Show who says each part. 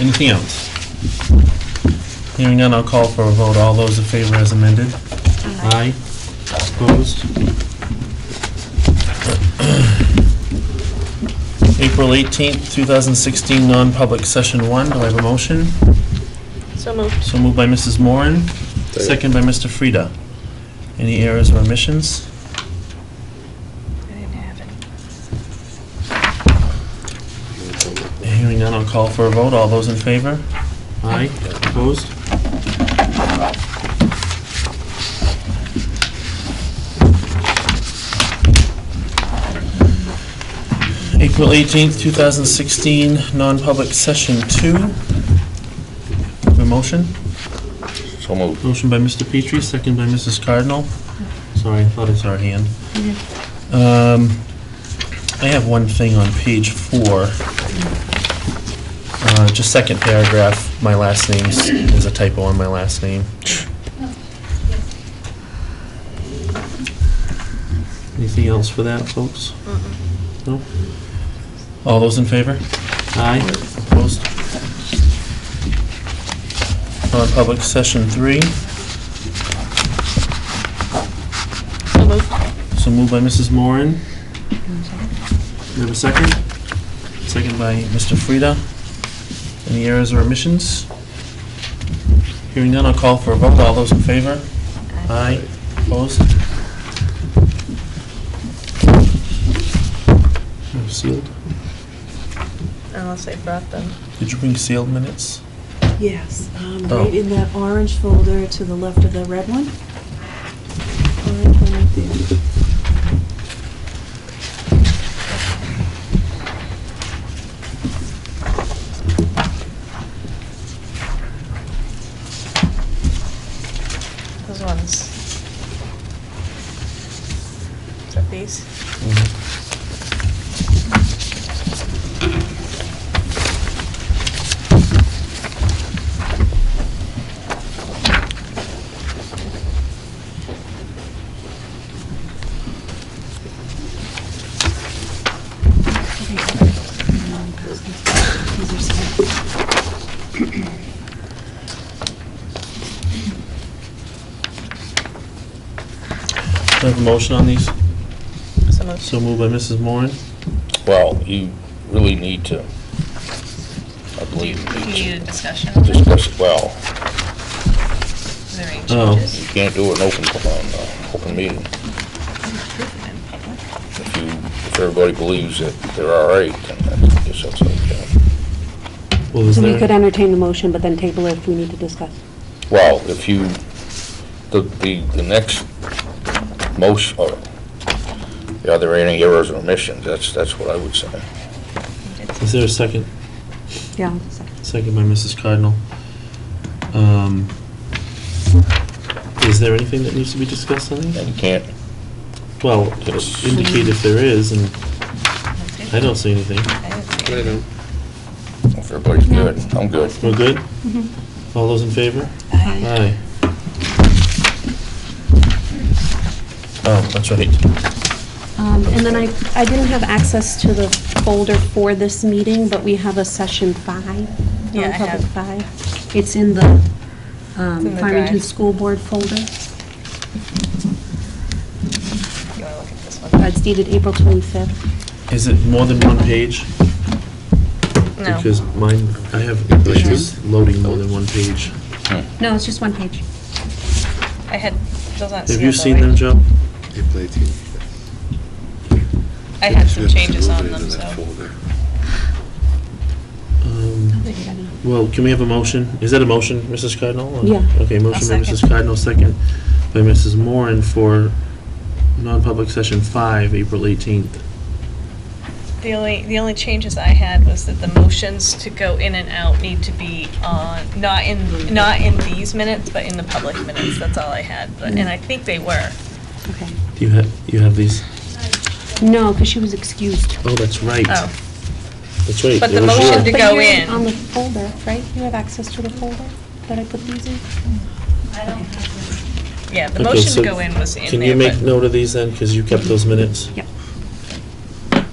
Speaker 1: Anything else? Hearing none, I'll call for a vote. All those in favor as amended? Aye. Opposed? April 18th, 2016, non-public session one. Do I have a motion?
Speaker 2: So moved.
Speaker 1: So moved by Mrs. Moran,
Speaker 3: Second.
Speaker 1: second by Mr. Frida. Any errors or omissions?
Speaker 2: I didn't have any.
Speaker 1: Hearing none, I'll call for a vote. All those in favor? Aye. Opposed? April 18th, 2016, non-public session two. A motion?
Speaker 3: So moved.
Speaker 1: Motion by Mr. Petrie, second by Mrs. Cardinal. Sorry, I thought it was our hand. Um, I have one thing on page four. Uh, Just second paragraph, my last name is a typo on my last name. Anything else for that, folks? No? All those in favor? Aye. Opposed? Non-public session three.
Speaker 2: So moved.
Speaker 1: So moved by Mrs. Moran. We have a second? Second by Mr. Frida. Any errors or omissions? Hearing none, I'll call for a vote. All those in favor? Aye. Opposed? No, Sealed?
Speaker 2: Unless they brought them.
Speaker 1: Did you bring sealed minutes?
Speaker 4: Yes, um,
Speaker 1: Oh.
Speaker 4: right in that orange folder to the left of the red one. Orange one right there.
Speaker 2: Those ones. Is that these?
Speaker 4: These are some-
Speaker 1: Do I have a motion on these?
Speaker 2: So moved.
Speaker 1: So moved by Mrs. Moran.
Speaker 3: Well, you really need to, I believe,
Speaker 2: need a
Speaker 3: you need
Speaker 2: discussion
Speaker 3: to discuss it well.
Speaker 2: Is there any
Speaker 1: Oh.
Speaker 3: You
Speaker 2: changes?
Speaker 3: can't do an open, um, open meeting. If you, if everybody believes that they're all right, then that's- I guess that's okay.
Speaker 1: Well, is
Speaker 5: So we
Speaker 1: there-
Speaker 5: could entertain the motion, but then table it if we need to discuss.
Speaker 3: Well, if you, the, the, the next most, or, are there any errors or omissions? That's, that's what I would say.
Speaker 1: Is there a second?
Speaker 5: Yeah.
Speaker 1: Second by Mrs. Cardinal. Um, Is there anything that needs to be discussed on these?
Speaker 3: And you can't,
Speaker 1: Well,
Speaker 3: Yes.
Speaker 1: indicate if there is, and I don't see anything.
Speaker 3: if everybody's good, I'm good.
Speaker 1: We're good? All those in favor? Aye. Oh, that's right.
Speaker 5: Um, And then I, I didn't have access to the folder for this meeting, but we have a session five,
Speaker 2: Yeah, I
Speaker 5: non-public
Speaker 2: have.
Speaker 5: five. It's in the
Speaker 2: It's in
Speaker 5: um,
Speaker 2: the
Speaker 5: Farmington
Speaker 2: drive.
Speaker 5: School Board folder.
Speaker 2: You wanna look at this one?
Speaker 5: Uh, It's dated April 25th.
Speaker 1: Is it more than one page?
Speaker 2: No.
Speaker 1: Because mine, I have issues loading more than one page.
Speaker 5: No, it's just one page.
Speaker 2: I had, those aren't
Speaker 1: Have you seen
Speaker 2: sealed, though,
Speaker 1: them,
Speaker 2: right?
Speaker 1: Joe?
Speaker 6: April 18th.
Speaker 2: I had some
Speaker 6: Should have
Speaker 2: changes
Speaker 6: moved
Speaker 2: on
Speaker 6: it
Speaker 2: them,
Speaker 6: into that
Speaker 2: so.
Speaker 6: folder.
Speaker 1: Um, Well, can we have a motion? Is that a motion, Mrs. Cardinal? or-
Speaker 5: Yeah.
Speaker 1: Okay, motion by
Speaker 2: I'll
Speaker 1: Mrs.
Speaker 2: second.
Speaker 1: Cardinal, second by Mrs. Moran for non-public session five, April 18th.
Speaker 2: The only, the only changes I had was that the motions to go in and out need to be on, not in, not in these minutes, but in the public minutes. That's all I had, but, and I think they were.
Speaker 5: Okay.
Speaker 1: Do you have, you have these?
Speaker 5: No, because she was excused.
Speaker 1: Oh, that's right.
Speaker 2: Oh.
Speaker 1: That's right.
Speaker 2: But
Speaker 1: it
Speaker 2: the
Speaker 1: was
Speaker 2: motion
Speaker 1: your-
Speaker 2: to
Speaker 5: But
Speaker 2: go
Speaker 5: you're
Speaker 2: in.
Speaker 5: On the folder, right? You have access to the folder that I put these in?
Speaker 2: Yeah, the
Speaker 1: Okay,
Speaker 2: motion
Speaker 1: so
Speaker 2: to go in was in there.
Speaker 1: Can you make
Speaker 2: but-
Speaker 1: note of these then, because you kept those minutes?
Speaker 5: Yep.